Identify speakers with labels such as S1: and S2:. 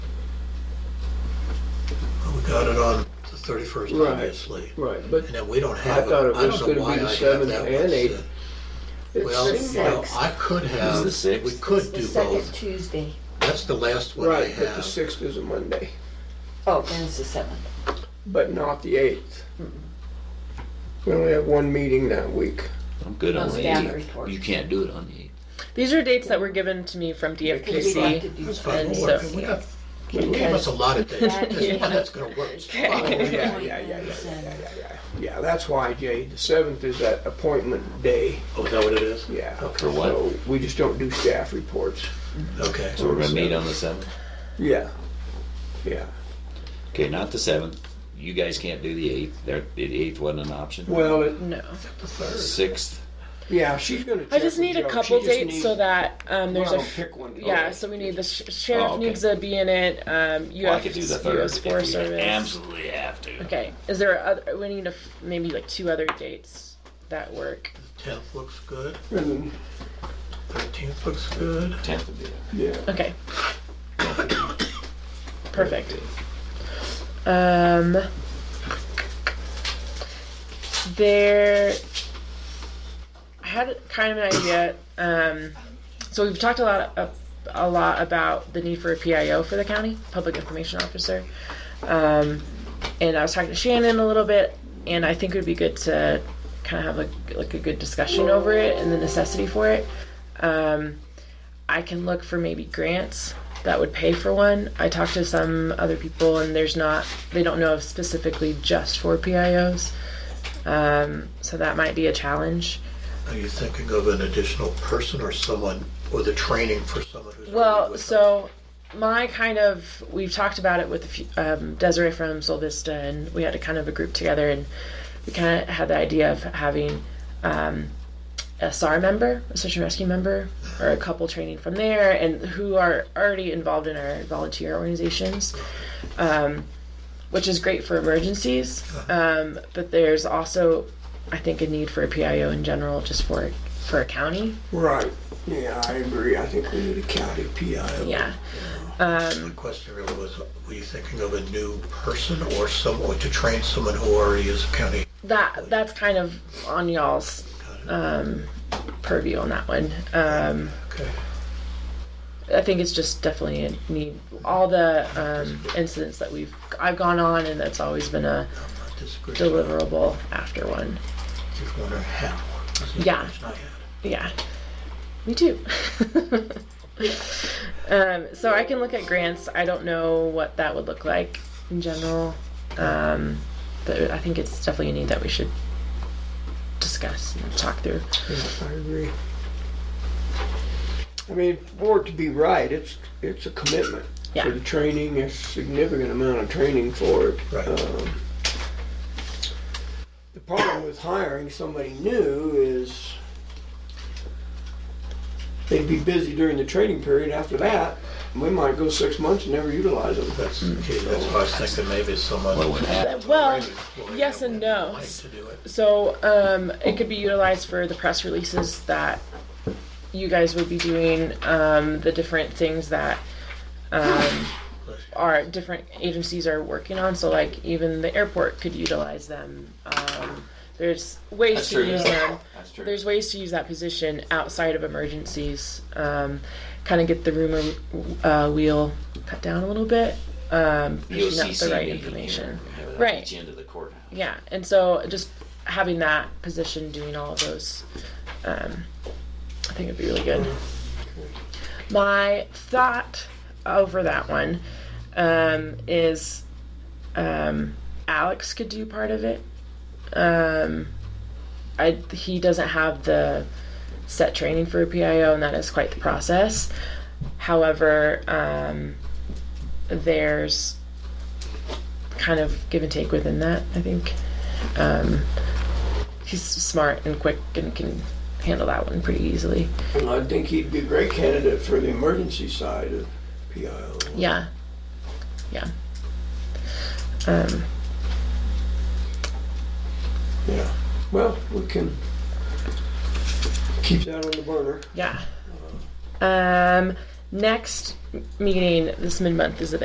S1: thirty-first,
S2: Right.
S1: obviously.
S2: Right, but
S1: And then we don't
S2: I
S1: have, it.
S2: thought it
S1: I
S2: was
S1: don't know
S2: gonna
S1: why
S2: be
S1: I
S2: the
S1: have
S2: seventh
S1: that
S2: and
S1: one.
S2: eighth.
S1: set.
S2: It
S1: Well,
S2: seemed
S1: you know,
S2: like-
S1: I could have,
S3: the
S1: we
S3: sixth?
S1: could do
S4: It's the second
S1: both.
S4: Tuesday.
S1: That's the last one I
S2: Right, but the
S1: have.
S2: sixth is a Monday,
S4: Oh, and it's the seventh.
S2: but not the eighth. We only have one meeting that week.
S3: I'm good
S4: No
S3: on the
S4: staff
S3: eighth.
S4: reports.
S3: You can't do it on the eighth.
S5: These are dates that were given to me from
S4: Because we'd like to
S5: DFPC.
S4: do
S1: That's
S4: both.
S1: fine,
S5: And
S1: we'll
S5: so-
S1: work it. We got- You gave us a lot of days, this one that's gonna work. Oh, is
S2: Yeah,
S1: fine.
S2: yeah, yeah, yeah, yeah, yeah, yeah, yeah. Yeah, that's why, Jay, the seventh is that appointment day,
S1: Oh, is that what it is?
S2: yeah.
S1: Okay.
S3: For what?
S2: So we just don't do staff reports.
S1: Okay.
S3: So we're gonna meet on the seventh?
S2: Yeah, yeah.
S3: Okay, not the seventh. You guys can't do the eighth. There, the eighth wasn't an option.
S2: Well, it-
S5: No.
S1: The third.
S3: Sixth,
S2: yeah, she's gonna check.
S5: I just
S2: with
S5: need
S2: Joe.
S5: a
S2: She
S5: couple
S2: just
S5: dates
S2: needs-
S5: so that um, there's
S2: Well,
S5: a f-
S2: pick one.
S5: yeah.
S2: Okay.
S5: So we need the sh- sheriff
S3: Oh, okay.
S5: needs to be in it. Um, you
S3: well, I
S5: have
S3: could do the
S5: s-
S3: third
S5: US
S3: if
S5: Forest
S3: we
S5: Service.
S3: absolutely have to.
S5: Okay. Is there other? We need a f- maybe like two other dates that work.
S1: Tenth looks good,
S2: And then,
S1: thirteenth looks good.
S3: Tenth would be it.
S2: Yeah.
S5: Okay. Perfect. Um. There. I had kind of an idea. Um, so we've talked a lot of, a lot about the need for a PIO for the county, public information officer. Um, and I was talking to Shannon a little bit, and I think it would be good to kind of have like like a good discussion over it and the necessity for it. Um, I can look for maybe grants that would pay for one. I talked to some other people, and there's not, they don't know of specifically just for PIOs. Um, so that might be a challenge.
S1: Are you thinking of an additional person or someone, or the training for someone who's? already
S5: Well,
S1: with us?
S5: so my kind of we've talked about it with a few, um, Desiree from Sol Vista, and we had a kind of a group together, and we kind of had the idea of having um, a SAR member, a search and rescue member, or a couple training from there, and who are already involved in our volunteer organizations. Um, which is great for emergencies, um, but there's also, I think, a need for a PIO in general, just for for a county.
S2: Right, yeah, I agree, I think we need a county PIO.
S5: Yeah.
S1: My question really was, were you thinking of a new person or someone to train someone who already is a county?
S5: that that's kind of on y'all's um, purview on that one. Um,
S1: Okay.
S5: I think it's just definitely a need. All the um, incidents that we've I've gone on, and that's always been a
S1: I'm not disagreeing.
S5: deliverable after one.
S1: Just wondering how. This is
S5: Yeah.
S1: the question I had.
S5: Yeah, me too. um, so I can look at grants. I don't know what that would look like in general, um, but I think it's definitely a need that we should discuss and talk through.
S2: Yeah, I agree. I mean, for it to be right, it's, it's a commitment.
S5: Yeah.
S2: For the training, it's a significant amount of training for it.
S1: Right.
S2: Um, The problem with hiring somebody new is they'd be busy during the training period. After that, we might go six months and never utilize them.
S1: That's, that's why I was thinking maybe someone.
S3: Well, it would happen.
S5: Well,
S1: Already employed
S5: yes
S1: that
S5: and
S1: would
S5: no.
S1: like to do it.
S5: So um, it could be utilized for the press releases that you guys would be doing, um, the different things that um, our different agencies are working on. So like even the airport could utilize them. Um, there's ways to use them.
S3: That's true.
S5: There's ways to use that position outside of emergencies. Um, kind of get the rumor uh, wheel cut down a little bit. Um,
S3: E
S5: pushing out the right information. Right.
S3: Each end of the courthouse.
S5: Yeah, and so just having that position doing all of those, um, I think it'd be really good. My thought over that one um, is um, Alex could do part of it. Um, I, he doesn't have the set training for a PIO, and that is quite the process. However, um, there's kind of give and take within that. I think um, he's smart and quick and can handle that one pretty easily.
S2: And I think he'd be a great candidate for the emergency side of PIO.
S5: Yeah, yeah. Um,
S2: Yeah, well, we can keep that on the burner.
S5: yeah. Um, next meeting this mid month is the